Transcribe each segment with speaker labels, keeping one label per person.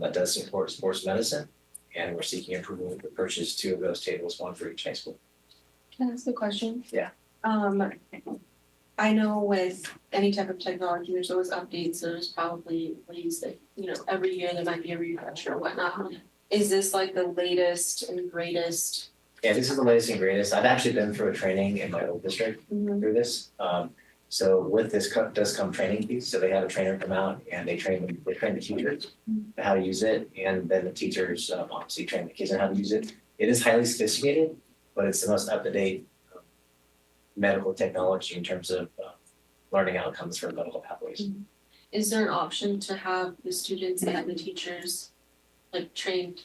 Speaker 1: that does support sports medicine. And we're seeking approval to purchase two of those tables, one for each high school.
Speaker 2: Can I ask a question?
Speaker 1: Yeah.
Speaker 2: Um, I know with any type of technology, there's always updates, so there's probably ways that, you know, every year there might be a refresh or whatnot. Is this like the latest and greatest?
Speaker 1: Yeah, this is the latest and greatest. I've actually been through a training in my old district through this. Um, so with this co- does come training piece, so they have a trainer come out and they train, they train the teachers on how to use it, and then the teachers um, obviously train the kids on how to use it. It is highly sophisticated, but it's the most up-to-date um, medical technology in terms of uh, learning outcomes for medical pathways.
Speaker 2: Is there an option to have the students and the teachers like trained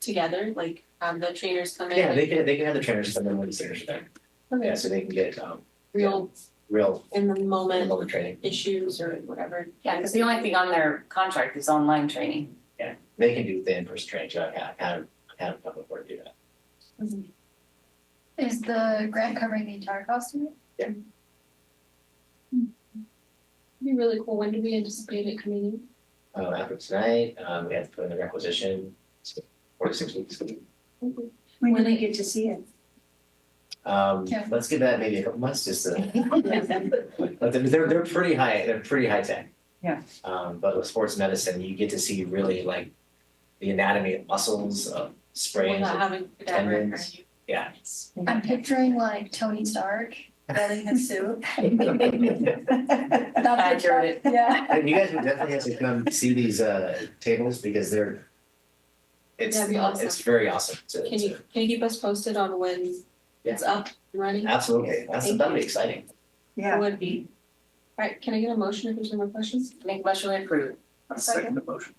Speaker 2: together, like have the trainers come in?
Speaker 1: Yeah, they can, they can have the trainers come in when the seniors are there, yeah,
Speaker 2: Okay,
Speaker 1: so they can get um,
Speaker 2: real
Speaker 1: real
Speaker 2: in the moment
Speaker 1: level training.
Speaker 2: issues or whatever.
Speaker 3: Yeah, because the only thing on their contract is online training.
Speaker 1: They can do the in-person training, so I've had, had, had a couple of do that.
Speaker 4: Is the grant covering the entire cost of it?
Speaker 2: Be really cool. When do we anticipate it coming in?
Speaker 1: Uh, after tonight, um, we have to put in the requisition, it's four to six weeks.
Speaker 5: When do they get to see it?
Speaker 1: Um,
Speaker 4: Yeah.
Speaker 1: let's give that maybe a couple months, just to. But they're, they're, they're pretty high, they're pretty high tech.
Speaker 3: Yeah.
Speaker 1: Um, but with sports medicine, you get to see really like the anatomy of muscles, of sprains.
Speaker 2: Without having that reoccurring.
Speaker 1: tendons. Yeah.
Speaker 4: I'm picturing like Tony Stark wearing a suit.
Speaker 1: And
Speaker 4: That's
Speaker 3: Accurate.
Speaker 4: Yeah.
Speaker 1: you guys would definitely have to come see these, uh, tables because they're, it's,
Speaker 2: That'd be awesome.
Speaker 1: it's very awesome to,
Speaker 2: Can you,
Speaker 1: to-
Speaker 2: can you keep us posted on when it's up and running?
Speaker 1: absolutely, that's,
Speaker 2: Thank
Speaker 1: that'd be
Speaker 2: you.
Speaker 1: exciting.
Speaker 5: Yeah.
Speaker 2: Would be. Alright, can I get a motion if there's no more questions?
Speaker 3: Make motion to approve.
Speaker 4: second
Speaker 6: the motion.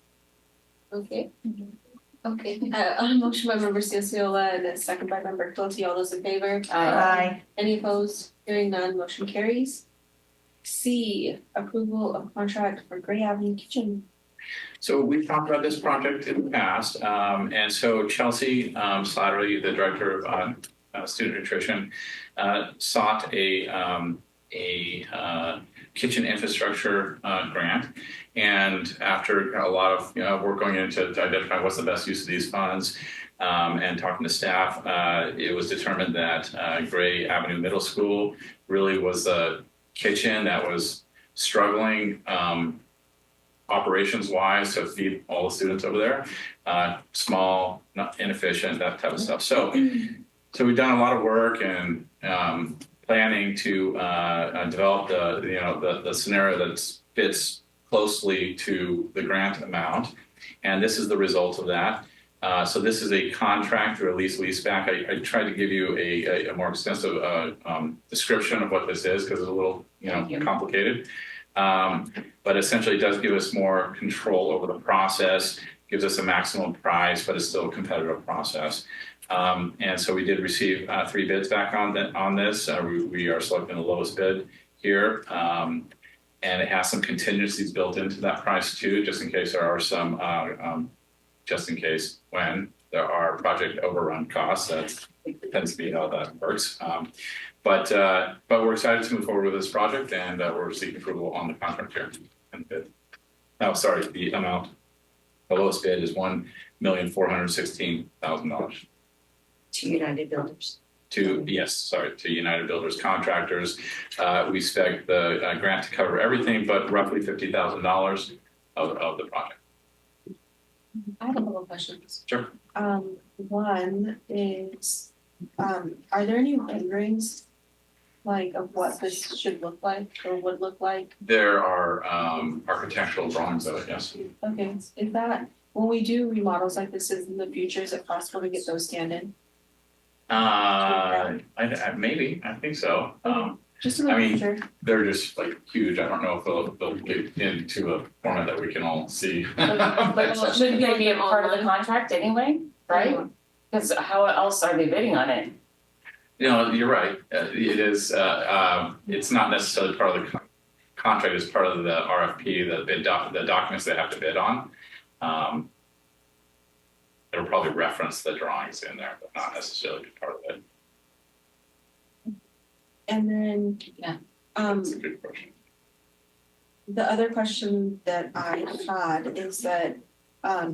Speaker 2: Okay.
Speaker 4: Mm-hmm. Okay.
Speaker 2: Uh, on a motion by member Ceciola and a second by member Quilty, all those in favor?
Speaker 4: Uh,
Speaker 3: Uh,
Speaker 5: Aye.
Speaker 2: Any opposed? Hearing none, motion carries. C, approval of contract for Gray Avenue Kitchen.
Speaker 6: So we've talked about this project in the past, um, and so Chelsea, um, Slattery, the director of, uh, uh, student nutrition, uh, sought a, um, a, uh, kitchen infrastructure, uh, grant. And after a lot of, you know, work going into to identify what's the best use of these funds, um, and talking to staff, uh, it was determined that, uh, Gray Avenue Middle School really was the kitchen that was struggling, um, operations wise to feed all the students over there. Uh, small, not inefficient, that type of stuff. So, so we've done a lot of work and um, planning to uh, uh, develop the you know the, the scenario that fits closely to the grant amount, and this is the result of that. Uh, so this is a contract or a lease leaseback. I, I tried to give you a, a, a more extensive uh, um, description of what this is because it's a little you know
Speaker 3: Thank you.
Speaker 6: complicated. Um, but essentially it does give us more control over the process, gives us a maximum price, but it's still a competitive process. Um, and so we did receive uh, three bids back on that on this. Uh, we, we are selecting the lowest bid here, um, and it has some contingencies built into that price too, just in case there are some, uh, um, just in case when there are project overrun costs. That tends to be how that works. Um, but uh, but we're excited to move forward with this project, and uh, we're seeking approval on the contract here and bid. Oh, sorry, the amount, the lowest bid is one million four hundred sixteen thousand dollars
Speaker 5: To United Builders.
Speaker 6: to, yes, sorry, to United Builders Contractors. Uh, we expect the uh, grant to cover everything but roughly fifty thousand dollars of, of the project.
Speaker 2: I have a couple of questions.
Speaker 6: Sure.
Speaker 2: Um, one is, um, are there any renderings? Like of what this should look like or would look like?
Speaker 6: There are um, architectural drawings of it, yes.
Speaker 2: Okay, is that, when we do remodels like this in the future, is it possible to get those scanned in?
Speaker 6: Uh, I, I, maybe, I think so. Um,
Speaker 2: Just in
Speaker 6: I
Speaker 2: the
Speaker 6: mean-
Speaker 2: future,
Speaker 6: they're just like huge. I don't know if they'll, they'll get into a format that we can all see.
Speaker 3: But shouldn't they be a part of the contract anyway, right?
Speaker 2: Mm-hmm.
Speaker 3: Because how else are they bidding on it?
Speaker 6: You know, you're right. Uh, It is, uh, um, it's not necessarily part of the con- contract, it's part of the RFP, the bid doc, the documents they have to bid on. Um, It'll probably reference the drawings in there, but not necessarily be part of it.
Speaker 2: and then,
Speaker 3: Yeah.
Speaker 2: Um,
Speaker 6: That's a good question.
Speaker 2: the other question that I had is that, um,